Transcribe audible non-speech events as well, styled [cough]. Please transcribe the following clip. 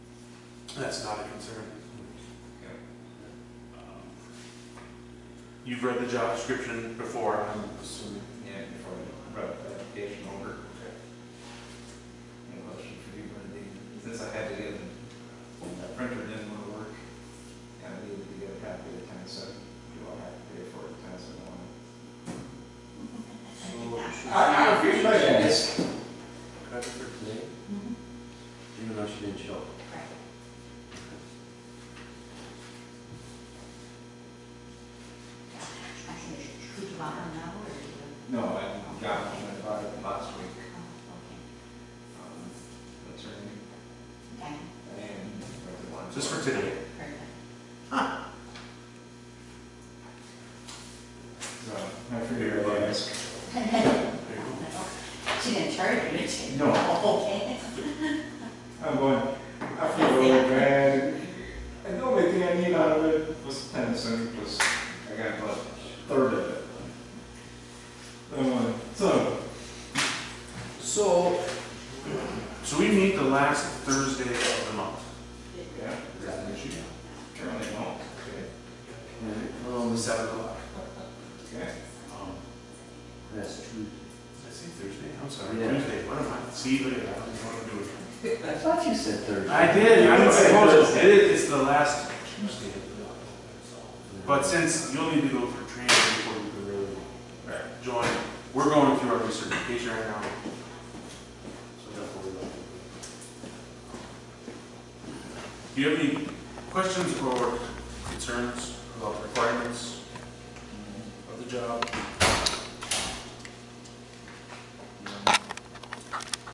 That's not a concern. Um, You've read the job description before, I'm assuming. Yeah, before I brought the application over. Any question for you, Wendy? Since I had to get, that printer didn't want to work, and I needed to get a copy of the time sub, do I have to pay for it, time sub one? I, I appreciate this. Okay. Even though she didn't show. No, I got it, I bought it last week, um, that's her name, and the one. Just for today. So, I figured I'd ask. [laughs] There you go. She didn't charge you, did she? No. Okay. I'm going, I feel really bad. And the only thing I need out of it was tennis and it was, I got about a third of it. Then I'm like, so, So, So we meet the last Thursday of the month. yeah, Is that an issue? apparently not. On the um, seventh o'clock. Okay. Um, that's true. Did I say Thursday? I'm sorry, Yeah. Tuesday. What am I, see, look, I don't know what I'm doing. I thought you said Thursday. I did, I did say suppose, Thursday. it is, it's the last Tuesday of the month. But since you'll need to go for training before you can really Right. join, we're going through our recertification right now. So therefore, we don't- Do you have any questions or concerns about requirements of the job?